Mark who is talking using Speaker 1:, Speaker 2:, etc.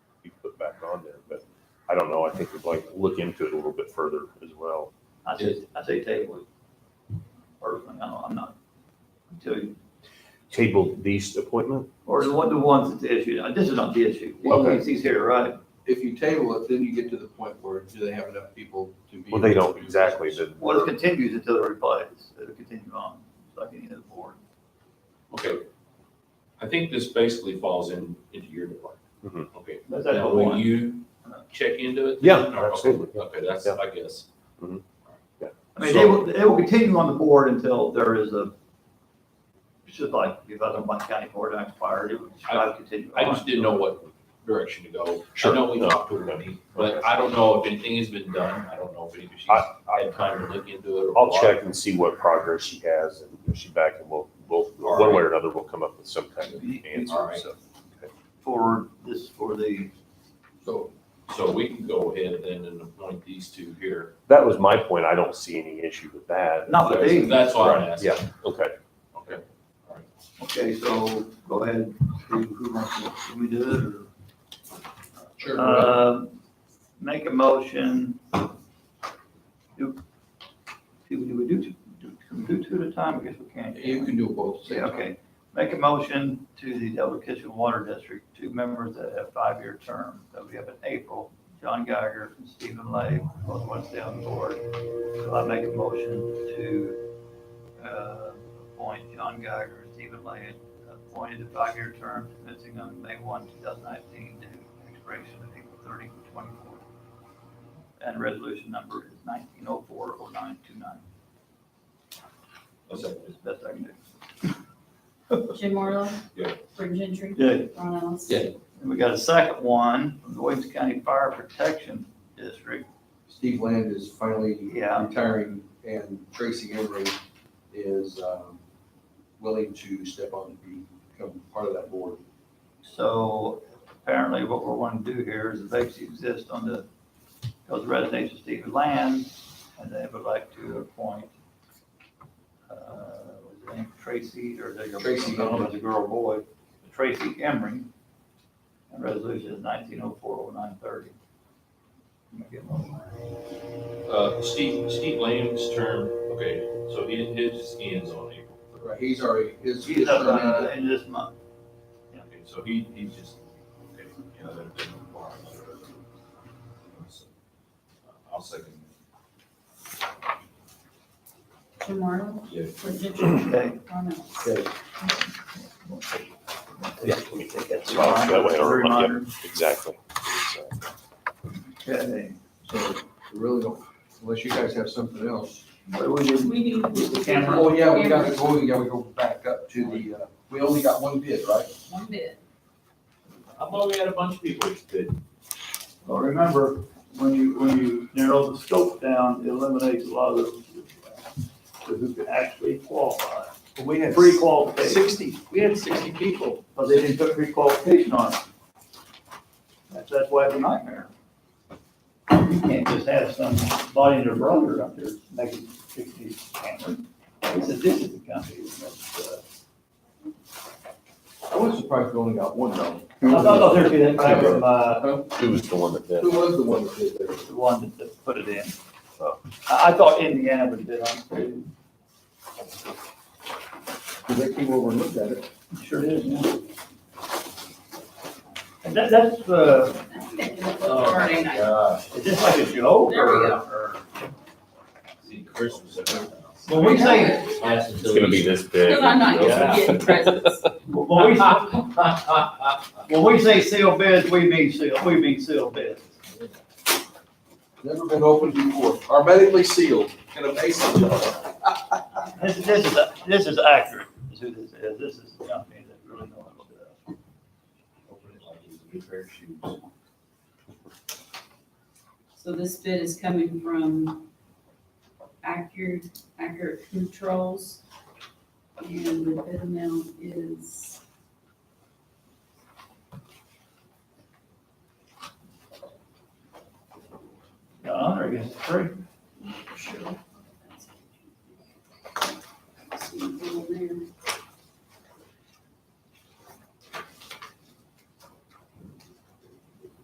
Speaker 1: impact on there, but I don't know. I think we'd like to look into it a little bit further as well.
Speaker 2: I say, I say table it. Personally, I don't, I'm not, until you,
Speaker 1: Table these appointment?
Speaker 2: or the one, the ones that's issued, Uh, this is not the issue. Well,
Speaker 1: Okay.
Speaker 2: he's, he's here, right?
Speaker 3: If you table it, then you get to the point where do they have enough people to be?
Speaker 1: Well, they
Speaker 3: able
Speaker 1: don't
Speaker 3: to-
Speaker 1: exactly, but
Speaker 2: Well, it continues until it replies, it'll continue on, it's like any other board.
Speaker 4: Okay. I think this basically falls in, into your department.
Speaker 1: Mhm.
Speaker 4: Okay.
Speaker 2: That's
Speaker 4: Now,
Speaker 2: that
Speaker 4: will
Speaker 2: one.
Speaker 4: you check into it?
Speaker 1: Yeah,
Speaker 4: Or- okay,
Speaker 1: absolutely.
Speaker 4: Okay, that's,
Speaker 1: Yeah.
Speaker 4: I guess.
Speaker 2: I mean, they will, they will continue on the board until there is a, it's just like, if I don't want county board to expire, it would, I would continue
Speaker 4: I
Speaker 2: on.
Speaker 4: just didn't know what direction to go. I
Speaker 1: Sure.
Speaker 4: know we
Speaker 1: No.
Speaker 4: talked to Wendy, but
Speaker 1: Okay.
Speaker 4: I don't know if anything has been done. I don't know if anybody's
Speaker 1: I-
Speaker 4: had time to look into it. or
Speaker 1: I'll
Speaker 4: what.
Speaker 1: check and see what progress she has and if she's back and we'll, we'll, one way or another, we'll come up with some kind of
Speaker 4: All
Speaker 1: answer.
Speaker 4: right.
Speaker 1: So
Speaker 2: For this, for the,
Speaker 3: So,
Speaker 4: So we can go ahead then and appoint these two here.
Speaker 1: That was my point. I don't see any issue with that.
Speaker 2: Not with these.
Speaker 4: That's why I'm
Speaker 1: Right,
Speaker 4: asking.
Speaker 1: Yeah, okay.
Speaker 4: Okay. All right.
Speaker 2: okay, so go ahead, who, who wants to, should we do it, or?
Speaker 4: Sure.
Speaker 2: Uh, Make a motion. Do, do do we do, two- do- can we do two at a time? I guess we can't.
Speaker 3: you can do both.
Speaker 2: Yeah, okay. Make a motion to the Double Kitchen Water District, two members that have five-year terms. That'll be up in April. John Geiger and Stephen Lay, both want to stay on the board. So I make a motion to, uh, appoint John Geiger and Stephen Lay, appointed to five-year terms commencing on May one, two thousand nineteen, to expiration of April thirty, twenty-four. And resolution number is nineteen oh four oh nine two nine.
Speaker 4: I'll second
Speaker 2: That's best I can do.
Speaker 5: Jim Morley.
Speaker 4: Yeah.
Speaker 5: Brent Gentry.
Speaker 2: Yeah,
Speaker 5: Ron Ellis.
Speaker 3: Yeah.
Speaker 2: And we got a second one from the Williams County Fire Protection District.
Speaker 3: Steve Land is finally
Speaker 2: Yeah.
Speaker 3: retiring and Tracy Emery is, um, willing to step on and become part of that board.
Speaker 2: So apparently what we're wanting to do here is the vacancy exists on the, those residents of Stephen Land, and they would like to appoint, uh, was her name Tracy, or they go,
Speaker 3: Tracy Emery.
Speaker 2: was a girl or boy, Tracy Emery. And resolution is nineteen oh four oh nine thirty.
Speaker 4: it. Uh, Steve, Steve Lamb's term, okay, so his, his ends on April.
Speaker 3: Right, He's already, his.
Speaker 2: She's up uh, in this month.
Speaker 4: Okay, so he, he just, okay, you know, that didn't apply. uh, I'll second.
Speaker 5: Jim Morley.
Speaker 4: Yeah.
Speaker 5: Brent Gentry.
Speaker 2: Okay.
Speaker 5: Ron Ellis.
Speaker 1: Yeah. Let me take that spot. That way, or- yeah, Exactly. So,
Speaker 2: Okay,
Speaker 3: So we really don't, unless you guys have something else.
Speaker 2: what do we do?
Speaker 5: We do.
Speaker 2: The camera.
Speaker 3: Oh, yeah, we got to go, yeah, we go back up to the, uh, we only got one bid, right?
Speaker 5: One bid.
Speaker 4: I thought we had a bunch of people that did.
Speaker 2: Well, remember, when you, when you narrow the scope down, it eliminates a lot of the the who can actually qualify.
Speaker 3: We had
Speaker 2: Pre-qualification,
Speaker 3: sixty, we had sixty people.
Speaker 2: but they didn't put pre-qualification on it. That's, that's why it's a nightmare. You can't just have some body and their brother up there making sixty cameras. It's a different country. that's, uh,
Speaker 3: I was surprised we only got one though.
Speaker 2: I thought, I thought there was that guy from, uh,
Speaker 1: Who was the one that did?
Speaker 3: Who was the one that did that?
Speaker 2: the one that- that put it in. So, I, I thought Indiana would have been on it too.
Speaker 3: Cause they came over and looked at it.
Speaker 2: Sure is, yeah. And that, that's, uh,
Speaker 5: Friday night.
Speaker 4: God.
Speaker 2: is this like a joke
Speaker 5: There we
Speaker 2: or?
Speaker 5: go.
Speaker 2: or-
Speaker 4: See, Christmas.
Speaker 2: When we say,
Speaker 1: It's gonna be this big.
Speaker 5: Because I'm not used to getting presents.
Speaker 2: when we, when we say sealed bids, we mean sealed, we mean sealed bids.
Speaker 3: Never been opened before, hermetically sealed in a mason jar.
Speaker 2: This, this is, this is accurate, is who this is. This is the company that really knows what they're doing.
Speaker 5: So this bid is coming from Accurate, Accurate Controls. And the bid amount is.
Speaker 2: Got on there against the tree.